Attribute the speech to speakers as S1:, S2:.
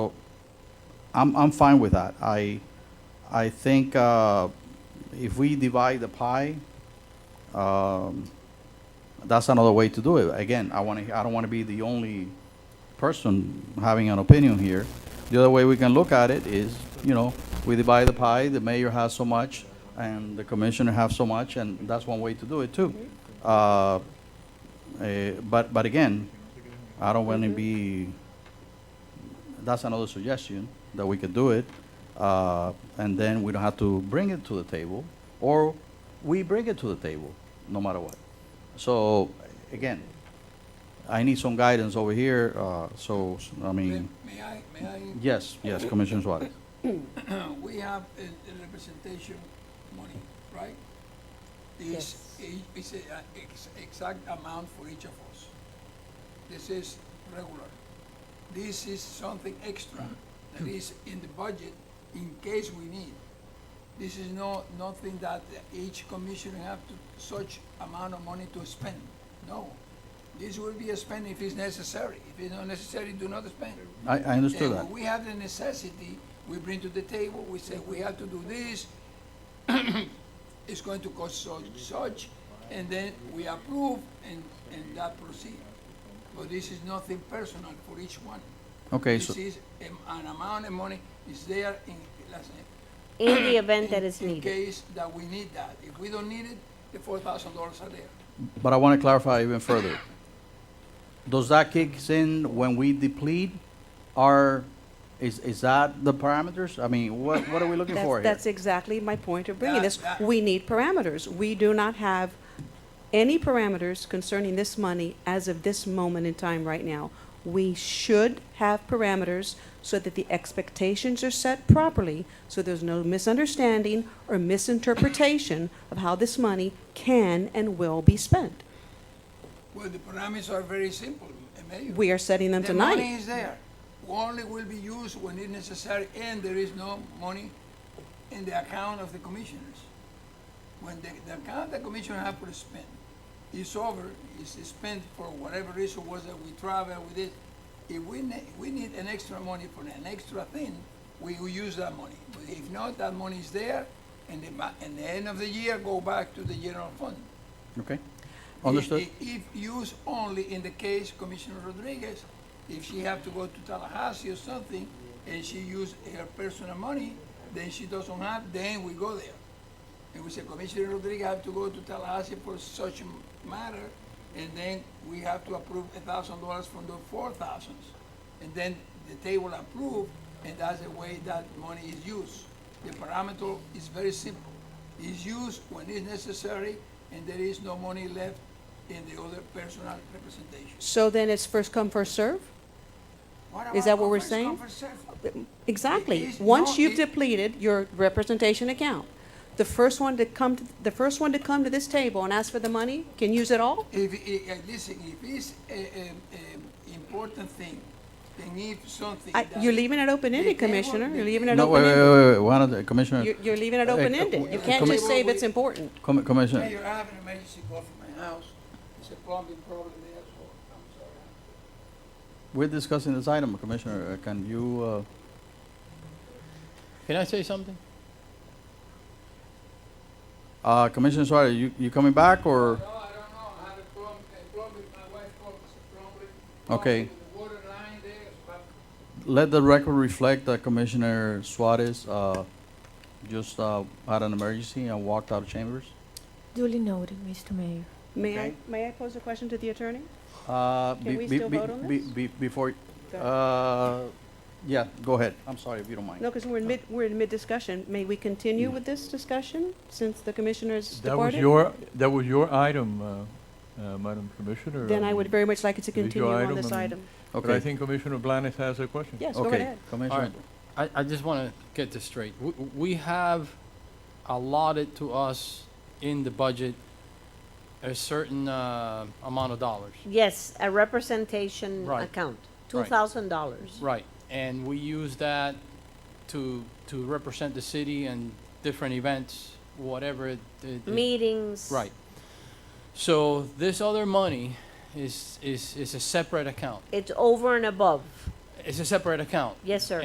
S1: I'm, I'm fine with that. I, I think uh, if we divide the pie, um, that's another way to do it. Again, I want to, I don't want to be the only person having an opinion here. The other way we can look at it is, you know, we divide the pie, the mayor has so much, and the commissioner have so much, and that's one way to do it too. Uh, eh, But, but again, I don't want to be, that's another suggestion, that we could do it, uh, and then we don't have to bring it to the table, or we bring it to the table, no matter what. So, again, I need some guidance over here, uh, so, I mean,
S2: May I, may I,
S1: yes, yes, Commissioner Suarez.
S2: we have a, a representation money, right? This
S3: Yes.
S2: is, is a, a ex- exact amount for each of us. This is regular. This is something extra that is in the budget in case we need. This is no, nothing that each commissioner have to, such amount of money to spend, no. This will be a spend if it's necessary, if it's not necessary, do not spend.
S1: I, I understood
S2: And
S1: that.
S2: when we have the necessity, we bring to the table, we say, we have to do this, it's going to cost such, such, and then we approve and, and that proceed. But this is nothing personal for each one.
S1: Okay, so,
S2: This is an an amount of money is there in, let's say,
S3: in the event that
S2: in-
S3: is
S2: In
S3: needed.
S2: case that we need that. If we don't need it, the four thousand dollars are there.
S1: but I want to clarify even further. Does that kick in when we deplete our, is, is that the parameters? I mean, what, what are we looking for
S4: That's,
S1: here?
S4: that's exactly my point of bringing
S2: That-
S4: this.
S2: that-
S4: We need parameters. We do not have any parameters concerning this money as of this moment in time right now. We should have parameters so that the expectations are set properly, so there's no misunderstanding or misinterpretation of how this money can and will be spent.
S2: Well, the parameters are very simple, Mayor.
S4: We are setting them
S2: The money
S4: tonight.
S2: is there. Only will be used when it's necessary and there is no money in the account of the commissioners. When the, the account the commissioner have to spend is over, is spent for whatever reason was that we travel with it. If we ne- we need an extra money for an extra thing, we will use that money. But if not, that money is there and the, ma- and the end of the year go back to the general fund.
S1: Okay, understood?
S2: If- If used only in the case Commissioner Rodriguez, if she have to go to Tallahassee or something, and she use her personal money, then she doesn't have, then we go there. And we say, Commissioner Rodriguez have to go to Tallahassee for such a matter, and then we have to approve a thousand dollars from the four thousands. And then the table approve, and that's the way that money is used. The parameter is very simple. It's used when it's necessary, and there is no money left in the other personal representation.
S4: So then it's first come, first serve? Is that what we're saying?
S2: It
S4: Exactly.
S2: is
S4: Once
S2: not-
S4: you've
S2: it-
S4: depleted your representation account, the first one to come, to the first one to come to this table and ask for the money can use it all?
S2: If, i- i- listen, if it's a, a, a important thing, then if something.
S4: I-
S2: that-
S4: You're leaving it
S2: The
S4: open-ended,
S2: table-
S4: Commissioner. You're leaving it
S1: No, wait, wait,
S4: open-ended.
S1: wait, wait, one of the, Commissioner.
S4: You're, you're leaving it
S1: Uh,
S4: open-ended. You
S1: uh,
S4: can't just
S2: commi-
S4: say if it's important.
S1: Com- Commissioner,
S2: Mayor, I have an emergency call from my house. It's a plumbing problem there, so I'm sorry.
S1: we're discussing this item, Commissioner, Uh, can you, uh,
S5: Can I say something?
S1: Uh, Commissioner Suarez, you, you coming back or?
S2: No, I don't know, I had a problem, a problem, my wife called, it's a problem.
S1: Okay.
S2: With the water line there, but
S1: Let the record reflect that Commissioner Suarez, uh, just, uh, had an emergency and walked out of chambers.
S6: Duly noted, Mr. Mayor.
S4: May I,
S1: Okay.
S4: may I pose a question to the attorney?
S1: Uh, be-
S4: Can we
S1: be-
S4: still
S1: be-
S4: vote on
S1: be-
S4: this?
S1: be- Before,
S4: Go ahead.
S1: uh, yeah, go ahead. I'm sorry if you don't mind.
S4: No, because we're in mid, we're in mid-discussion. May we continue
S2: Mm.
S4: with this discussion since the commissioner's
S5: That was
S4: departed?
S5: your, that was your item, uh, uh, Madam Commissioner.
S4: Then I
S5: um,
S4: would very much like it to
S5: Is your
S4: continue on
S5: item,
S4: this
S5: I mean-
S4: item.
S5: But I
S1: Okay.
S5: think Commissioner Blanes has a question.
S4: Yes, go
S1: Okay.
S4: right ahead.
S1: Commissioner,
S5: right. I, I just want to get this straight. We, we have allotted to us in the budget a certain, uh, amount of dollars.
S3: Yes, a representation
S5: Right.
S3: account, two
S5: Right.
S3: thousand dollars.
S5: Right, and we use that to, to represent the city and different events, whatever it. it- it-
S3: Meetings.
S5: Right. So this other money is, is, is a separate account.
S3: It's over and above.
S5: It's a separate account.
S3: Yes, sir.